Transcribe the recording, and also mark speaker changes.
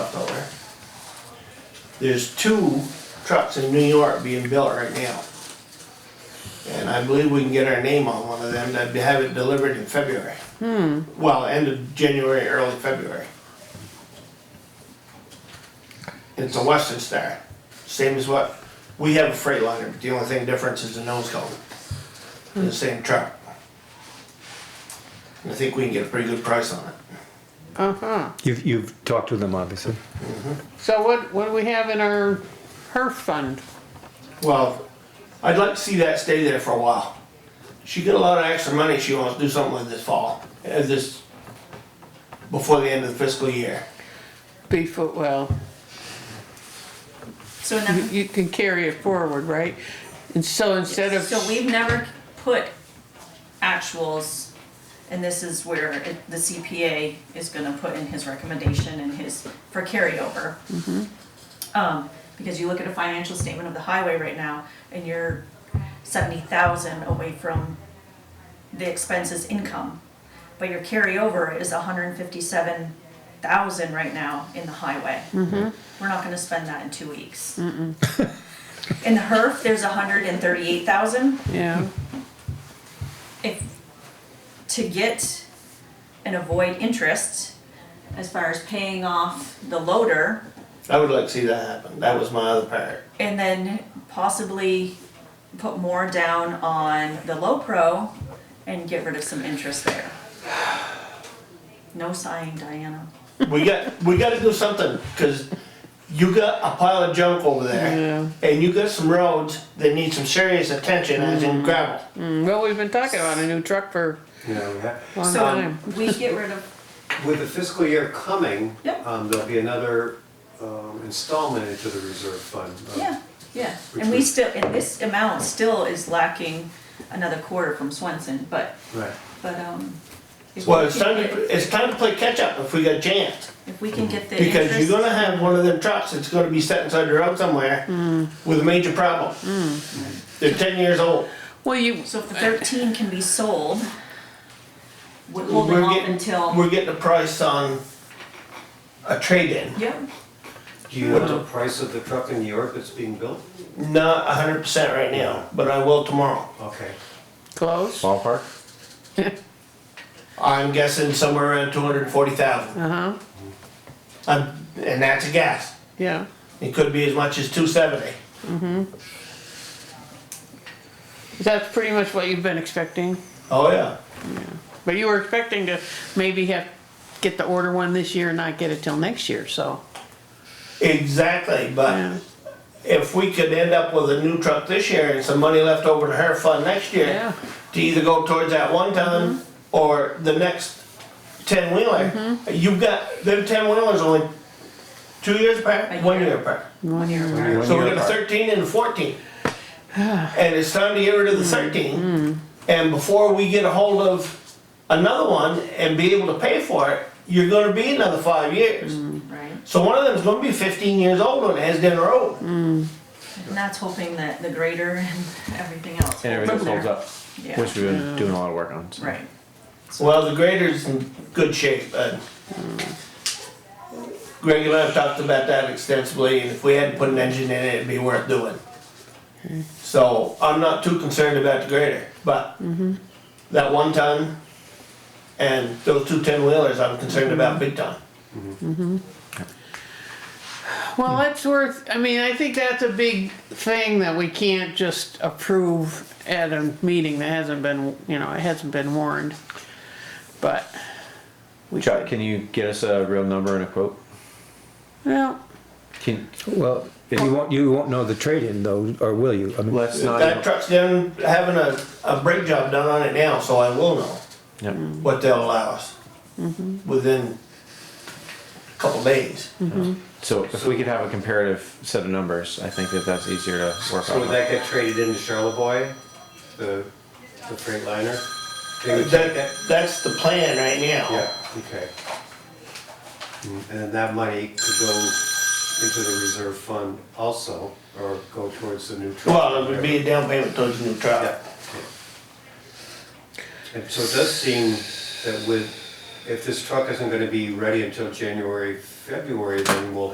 Speaker 1: There's two trucks in New York being built right now. And I believe we can get our name on one of them, to have it delivered in February. Well, end of January, early February. It's a Western Star, same as what, we have a Freightliner, but the only thing difference is the nose cone. They're The same truck. And I think we can get a pretty good price on it.
Speaker 2: Uh-huh.
Speaker 3: You've, you've talked with them, obviously.
Speaker 2: So what, what do we have in our HERF fund?
Speaker 1: Well, I'd like to see that stay there for a while. She got a lot of extra money she wants to do something with this fall, uh, this, before the end of the fiscal year.
Speaker 2: Before, well,
Speaker 4: So,
Speaker 2: you-
Speaker 4: now,
Speaker 2: you can carry it forward, right? And so instead of,
Speaker 4: so we've never put actuals, and this is where it- the CPA is gonna put in his recommendation and his, for carryover. Um, because you look at a financial statement of the highway right now, and you're seventy thousand away from the expenses income. But your carryover is hundred and fifty-seven thousand right now in the highway. We're not gonna spend that in two weeks. In the HERF, there's hundred and thirty-eight thousand.
Speaker 2: yeah,
Speaker 4: If, to get and avoid interest, as far as paying off the loader,
Speaker 1: I would like to see that happen, that was my other part.
Speaker 4: and then possibly put more down on the low pro and get rid of some interest there. No sighing, Diana.
Speaker 1: We got, we gotta do something, cause you got a pile of junk over
Speaker 2: Yeah.
Speaker 1: there. And you got some roads that need some serious attention, as in gravel.
Speaker 2: Mm, well, we've been talking about a new truck for
Speaker 5: Yeah, we have-
Speaker 2: a long
Speaker 4: So
Speaker 2: time.
Speaker 4: we get rid of,
Speaker 5: With the fiscal year coming,
Speaker 4: Yep.
Speaker 5: um, there'll be another um, installment into the reserve fund. uh,
Speaker 4: yeah, yeah, and we still, and this amount still is lacking another quarter from Swenson, but,
Speaker 5: Right.
Speaker 4: but, um. if we
Speaker 1: Well, it's
Speaker 4: can
Speaker 1: time
Speaker 4: get-
Speaker 1: to, it's time to play catch up if we got a chance.
Speaker 4: If we can get the
Speaker 1: Because you're
Speaker 4: interest,
Speaker 1: gonna have one of them trucks that's gonna be set inside the road somewhere with a major problem. They're ten years old.
Speaker 2: Well, you,
Speaker 4: so if the thirteen can be sold, we're holding
Speaker 1: We're
Speaker 4: off
Speaker 1: getting-
Speaker 4: until,
Speaker 1: We're getting a price on a trade-in,
Speaker 4: yeah,
Speaker 5: Do you know the price of the truck in New York that's being built?
Speaker 1: not a hundred percent right now, but I will tomorrow.
Speaker 5: Okay.
Speaker 2: close,
Speaker 6: Ballpark?
Speaker 1: I'm guessing somewhere around two hundred and forty thousand.
Speaker 2: uh-huh,
Speaker 1: I'm, and that's a guess.
Speaker 2: yeah.
Speaker 1: It could be as much as two seventy.
Speaker 2: That's pretty much what you've been expecting,
Speaker 1: Oh, yeah.
Speaker 2: but you were expecting to maybe have, get the order one this year and not get it till next year, so,
Speaker 1: Exactly,
Speaker 2: yeah.
Speaker 1: but if we could end up with a new truck this year and some money left over to her fund next
Speaker 2: Yeah.
Speaker 1: year, to either go towards that one
Speaker 4: Mm-hmm.
Speaker 1: ton or the next ten wheeler, you've got, them ten wheelers only two years apart,
Speaker 4: A
Speaker 1: one
Speaker 4: year.
Speaker 1: year apart.
Speaker 4: one year apart.
Speaker 6: One
Speaker 1: So we
Speaker 6: year
Speaker 1: got a
Speaker 6: apart.
Speaker 1: thirteen and a fourteen. And it's time to get rid of the
Speaker 4: Mm-hmm.
Speaker 1: thirteen, and before we get a hold of another one and be able to pay for it, you're gonna be another five years.
Speaker 4: Mm-hmm. Right,
Speaker 1: So one of them's gonna be fifteen years old on Asden Road.
Speaker 4: and that's hoping that the grader and everything else.
Speaker 6: And everything holds up,
Speaker 4: Yeah.
Speaker 6: which we've been doing a lot of work on. so.
Speaker 4: Right,
Speaker 1: Well, the grader's in good shape, but Greg and I have talked about that extensively, and if we hadn't put an engine in it, it'd be worth doing. So I'm not too concerned about the grader, but that one ton and those two ten wheelers, I'm concerned about big time.
Speaker 2: Well, that's worth, I mean, I think that's a big thing that we can't just approve at a meeting that hasn't been, you know, it hasn't been warned. But,
Speaker 6: Chuck, can you get us a real number and a quote?
Speaker 2: well,
Speaker 6: Can,
Speaker 3: Well, you won't, you won't know the trade-in though, or will you? I mean,
Speaker 6: let's
Speaker 1: That
Speaker 6: not,
Speaker 1: truck's down, having a, a brake job done on it now, so I will know
Speaker 6: Yep.
Speaker 1: what they'll allow us within a couple days.
Speaker 6: so if we could have a comparative set of numbers, I think that that's easier to work
Speaker 5: So would
Speaker 6: on.
Speaker 5: that get traded into Charlevoix, the, the freight liner? They would
Speaker 1: That,
Speaker 5: take that?
Speaker 1: that's the plan right now.
Speaker 5: Mm-hmm. Yeah, okay. Mm, And then that money could go into the reserve fund also, or go towards the new truck.
Speaker 1: Well, it would be a down payment towards a new truck.
Speaker 5: Yeah. And so it does seem that with, if this truck isn't gonna be ready until January, February, then we'll